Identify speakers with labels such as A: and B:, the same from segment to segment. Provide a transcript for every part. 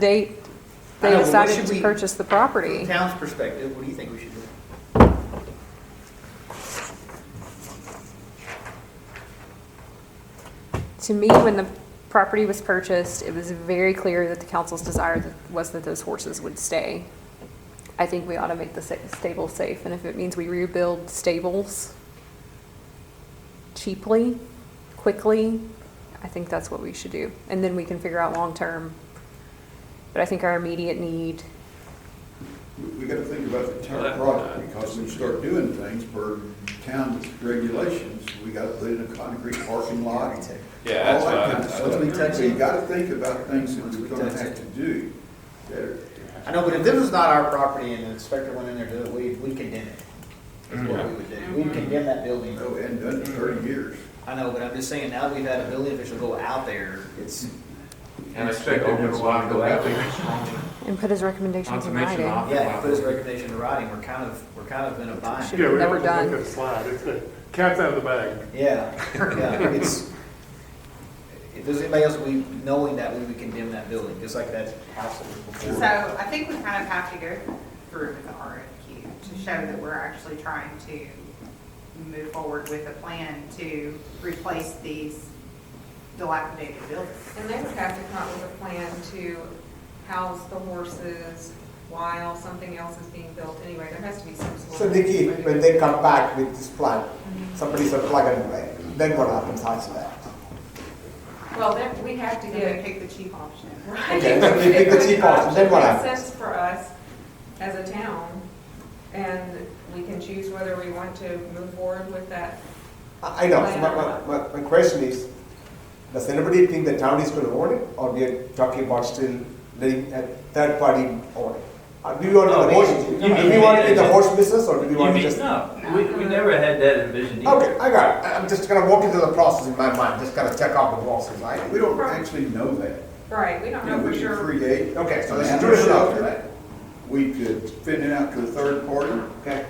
A: date they
B: I know, but what
A: decided
B: should
A: to
B: we-
A: purchase the
B: From
A: property.
B: the town's perspective, what do you think we should do?
A: To me, when the property was purchased, it was very clear that the council's desire that- was that those horses would stay. I think we ought to make the sa- stable safe, and if it means we rebuild stables cheaply, quickly, I think that's what we should do. And then we can figure out long-term. But I think our immediate need,
C: We- We gotta think about the town project, because we start doing things per town regulations, we gotta put in a concrete parking lot. and
D: Yeah, that's
C: all that
D: what I-
C: kind of
D: that's
C: stuff.
B: what I-
C: So You gotta think about things that
B: Once
C: we're
B: we
C: gonna
B: touch
C: have
B: it.
C: to do. that are-
B: I know, but if this was not our property and the inspector went in there to do it, we, we condemn it. That's what we would do. We condemn that building.
C: Oh, and done in thirty years.
B: I know, but I'm just saying, now that we've had a building official go out there, it's,
D: And expect open a lot go out there.
A: and put his recommendations in
D: Confirmation
A: writing.
D: off.
B: yeah, he put his recommendation in writing, we're kind of, we're kind of in a bind.
E: Yeah, we
A: Never
E: don't have
A: done.
E: to let that slide. It's the cat's out of the bag.
B: Yeah, yeah, it's, if there's anybody else, we, knowing that, we would condemn that building, just like that house that was
F: So
B: before.
F: I think we kind of have to go through with the RFQ to show that we're actually trying to move forward with a plan to replace these dilapidated buildings.
G: And they would have to come up with a plan to house the horses while something else is being built anyway. There has to be some sort of.
H: So Nikki, when they come back with this plan, somebody's a plug and play, then what happens after that?
G: Well, then we have to
F: And then
G: get.
F: pick the cheap option.
G: Right.
H: Okay, so we pick the cheap option, then what
G: It
H: happens?
G: makes sense for us as a town and we can choose whether we want to move forward with that.
H: I I know, so my, my- my, my question is, does anybody think the town is gonna own it, or we are talking about still letting a third party own it? Uh, Do you want
I: No,
H: the
I: we-
H: horse,
I: you
H: do
I: mean-
H: we want to be the horse business, or do we
I: You
H: want to
I: mean-
H: just?
I: no, we, we never had that envisioned either.
H: Okay, I got it, I- I'm just gonna walk into the process in my mind, just gotta check off the boxes, right?
C: We don't actually know that.
G: Right, we don't
C: You know,
G: know for
C: we could
G: sure.
C: create.
H: Okay, so this is
C: an
H: true enough.
C: shelter. We could fit it out to a third party.
H: Okay.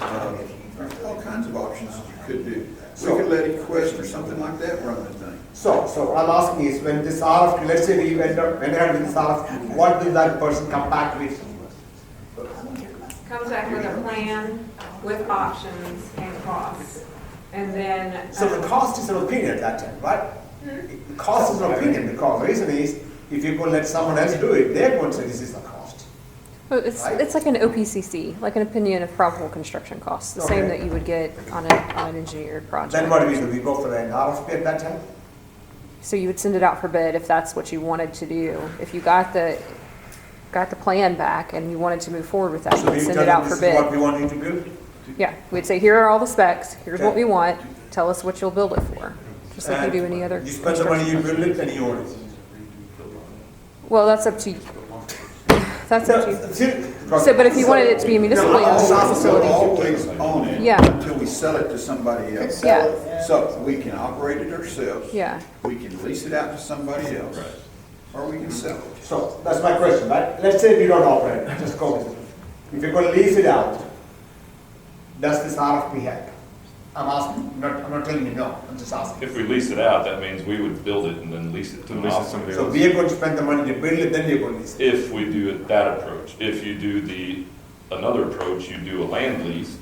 C: Um, There's all kinds of options that you could do. We could let a quest or something like that run the thing.
H: So, so what I'm asking is, when this RFQ, let's say we end up, when I have this RFQ, what will that person come back with?
G: Comes back with a plan with options and costs. And then.
H: So
G: um,
H: the cost is an opinion at that time, right? The cost is an opinion, because the reason is, if you go let someone else do it, they're going to say this is the cost.
A: Well, it's,
H: Right.
A: it's like an OPCC, like an opinion of probable construction costs, the same
H: Okay.
A: that you would get on a, on an engineered project.
H: Then what do we do? We go for an RFP at that time?
A: So you would send it out for bid if that's what you wanted to do. If you got the, got the plan back and you wanted to move forward with that,
H: So
A: you
H: we
A: would send
H: tell
A: it
H: them
A: out
H: this
A: for
H: is what
A: bid.
H: we want you to build?
A: Yeah, we'd say, here are all the specs, here's what we
H: Okay.
A: want, tell us what you'll build it for, just like you do any other.
H: You spend the money, you build it, and you own it.
A: construction. Well, that's up to you. That's up to you.
H: So,
A: So, but if you wanted it to be a municipally
H: No,
A: owned
H: I'll-
A: facility.
C: Always own it.
A: Yeah.
C: Until we sell it to somebody else.
A: Yeah.
C: So we can operate it ourselves.
A: Yeah.
C: We can lease it out to somebody else. Or we can sell it.
H: So, that's my question, right? Let's say we don't operate, it, just go with it. If you're gonna lease it out, does this RFP help? I'm asking, not, I'm not telling you no, I'm just asking.
J: If we lease it out, that means we would build it and then lease it to an
D: Lease it to
J: operator.
D: somebody
H: So we are going to spend the money to build it, then we're going to lease it.
J: If we do it that approach, if you do the, another approach, you do a land lease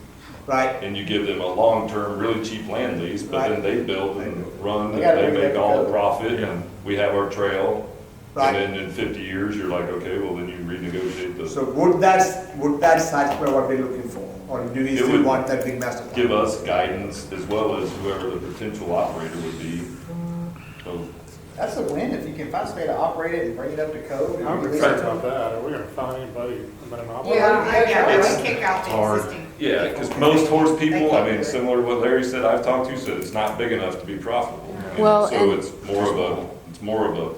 H: Right,
J: and you give them a long-term, really cheap land lease, but then they build and run and
B: gotta
J: they
B: bring back
J: make
B: the
J: all the
B: code.
J: profit and we have our trail.
H: Right.
J: And then in fifty years, you're like, okay, well then you renegotiate the,
H: so would that, would that satisfy what we're looking for? Or do we
J: It
H: still
J: would
H: want that big master plan?
J: give us guidance as well as whoever the potential operator would be. So
B: That's a win, if you can find somebody to operate it and bring it up to code. and
E: I'm
B: release it
E: excited
B: to-
E: about that. Are we gonna find anybody, but I'm.
G: Yeah.
F: Yeah,
J: It's-
F: we kick out
J: It's
F: the
J: hard.
F: existing.
J: Yeah, because most horse people, I mean,
F: They can't do it.
J: similar to what Larry said, I've talked to, said it's not big enough to be profitable. And
A: Well,
J: So
A: and-
J: it's more of a, it's more of a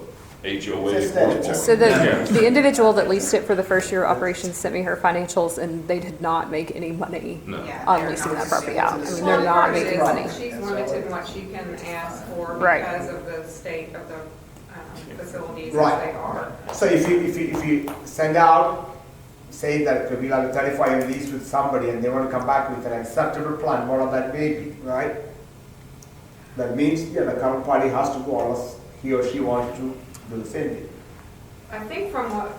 J: HOA
B: It's aesthetic.
J: horse
A: So
J: park.
A: the, the individual that leased it for the first year of operations sent me her financials and they did not make any money
J: No.
F: Yeah,
A: on
F: they're
A: leasing
F: not
A: that property out. I mean,
G: Well,
A: they're not
G: part of it
A: making
G: is
A: money.
G: She's limited in what she can ask for
A: Right.
G: because of the state of the um, facilities as
H: Right.
G: they are.
H: So if you, if you, if you send out, say that we'll have a thirty-five lease with somebody and they want to come back with an acceptable plan, what of that may be, right? That means, yeah, the current party has to go unless he or she wants to do the same thing.
G: I think from what